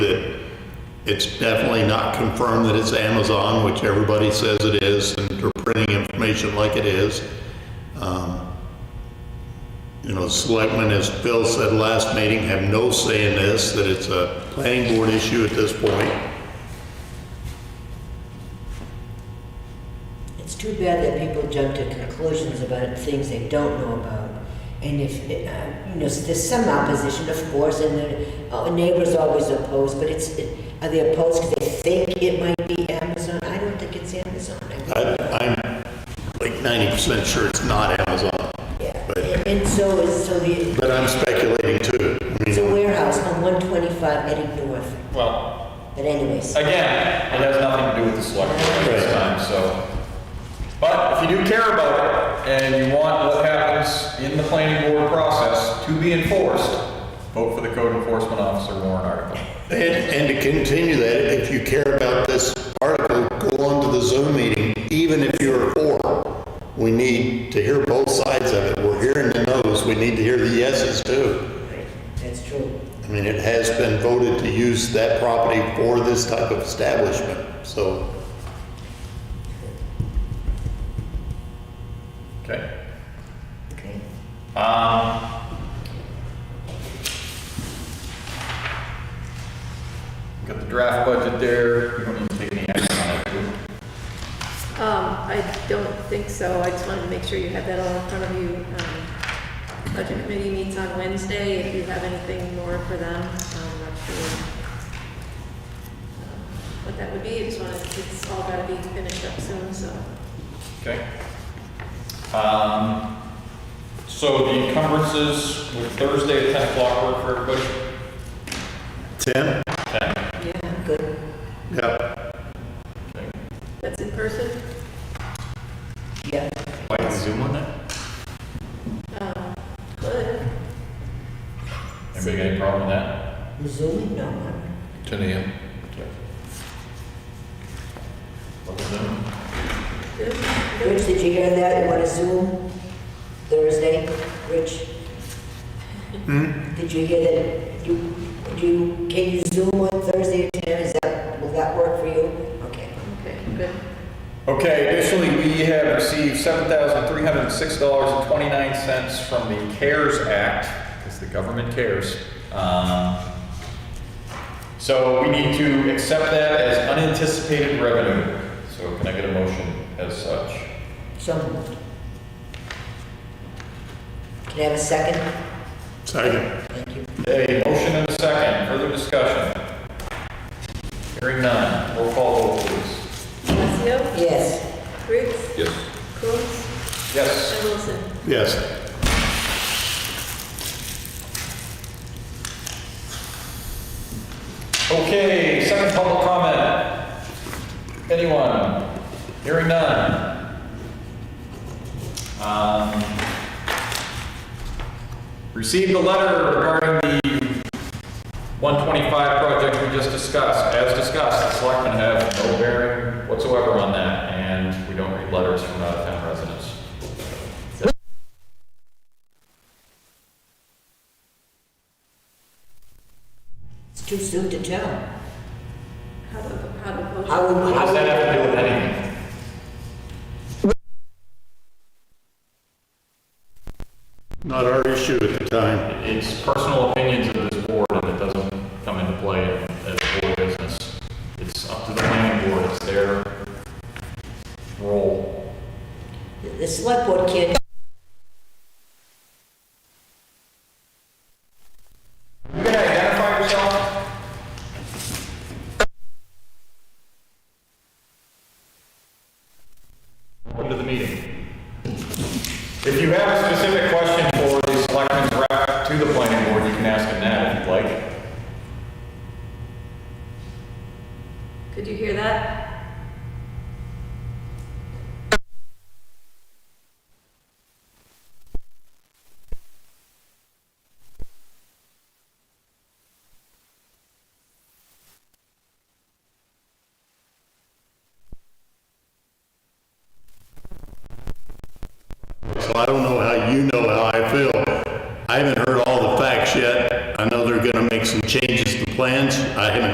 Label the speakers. Speaker 1: It's definitely not confirmed that it's Amazon, which everybody says it is, and they're printing information like it is. Um, You know, selectmen, as Phil said last meeting, have no say in this, that it's a planning board issue at this point.
Speaker 2: It's too bad that people jump to conclusions about things they don't know about. And if, it, uh, you know, there's some opposition, of course, and the uh, neighbors always oppose, but it's, it- are they opposed because they think it might be Amazon? I don't think it's Amazon. I think-
Speaker 1: I- I'm like 90% sure it's not Amazon,
Speaker 2: Yeah.
Speaker 1: but,
Speaker 2: And so is, so the,
Speaker 1: but I'm speculating too. I
Speaker 2: it's a
Speaker 1: mean,
Speaker 2: warehouse on 125 heading north.
Speaker 3: Well,
Speaker 2: But anyways,
Speaker 3: again, it has nothing to do with the select board at this
Speaker 1: Right.
Speaker 3: time, so. But if you do care about it and you want what happens in the planning board process to be enforced, vote for the code enforcement officer warrant article.
Speaker 1: And, and to continue that, if you care about this article, go on to the Zoom meeting, even if you're for. We need to hear both sides of it. We're hearing the no's, we need to hear the yeses too.
Speaker 2: that's true.
Speaker 1: I mean, it has been voted to use that property for this type of establishment, so.
Speaker 3: Okay?
Speaker 2: Okay.
Speaker 3: Um, Got the draft budget there, you don't need to take any action on it. do you?
Speaker 4: Um, I don't think so. I just wanted to make sure you had that all in front of you. Um, Budget committee meets on Wednesday. If you have anything more for them, I'm not sure um, what that would be. I just wanted, it's all gotta be finished up soon, so.
Speaker 3: Okay. Um, So the encumbrances, would Thursday at 10 o'clock work for everybody?
Speaker 1: Tim?
Speaker 4: Yeah.
Speaker 2: Good.
Speaker 1: Yeah.
Speaker 4: That's in person?
Speaker 2: Yeah.
Speaker 3: Like Zoom on that?
Speaker 4: Um, Good.
Speaker 3: Anybody got any problem with that?
Speaker 2: Zoom? No. I'm-
Speaker 3: 10 AM. Double Zoom?
Speaker 4: Good.
Speaker 2: Rich, did you hear that? You want to Zoom Thursday? Rich? Did you hear that? You, you, can you Zoom on Thursday at 10? Is that, will that work for you? Okay.
Speaker 4: Okay, good.
Speaker 3: Okay, additionally, we have received seven thousand three hundred and six dollars and twenty-nine cents from the CARES Act, because the government cares. Um, So we need to accept that as unanticipated revenue. So can I get a motion as such?
Speaker 2: So moved. Can I have a second?
Speaker 1: Second.
Speaker 2: Thank you.
Speaker 3: A motion and a second, further discussion? Hearing none, roll call vote please.
Speaker 4: Alessio?
Speaker 2: Yes.
Speaker 4: Briggs?
Speaker 3: Yes.
Speaker 4: Coons?
Speaker 3: Yes.
Speaker 4: And Wilson?
Speaker 1: Yes.
Speaker 3: Okay, second public comment. Anyone? Hearing none. Um, Received a letter regarding the 125 project we just discussed. As discussed, the selectmen have no bearing whatsoever on that, and we don't read letters from out-of-town residents.
Speaker 2: It's too soon to tell.
Speaker 4: How do, how do voters?
Speaker 2: How would,
Speaker 3: What
Speaker 2: how
Speaker 3: does that
Speaker 2: would,
Speaker 3: have to do with anything?
Speaker 1: Not our issue at the time.
Speaker 3: It's personal opinions of this board, and it doesn't come into play as board business. It's up to the planning board, it's their role.
Speaker 2: the select board can't,
Speaker 3: You gonna identify yourself? Welcome to the meeting. If you have a specific question for the selectmen's rep to the planning board, you can ask them that if you'd like.
Speaker 4: Could you hear that?
Speaker 1: So I don't know how you know how I feel. I haven't heard all the facts yet. I know they're gonna make some changes to plans. I haven't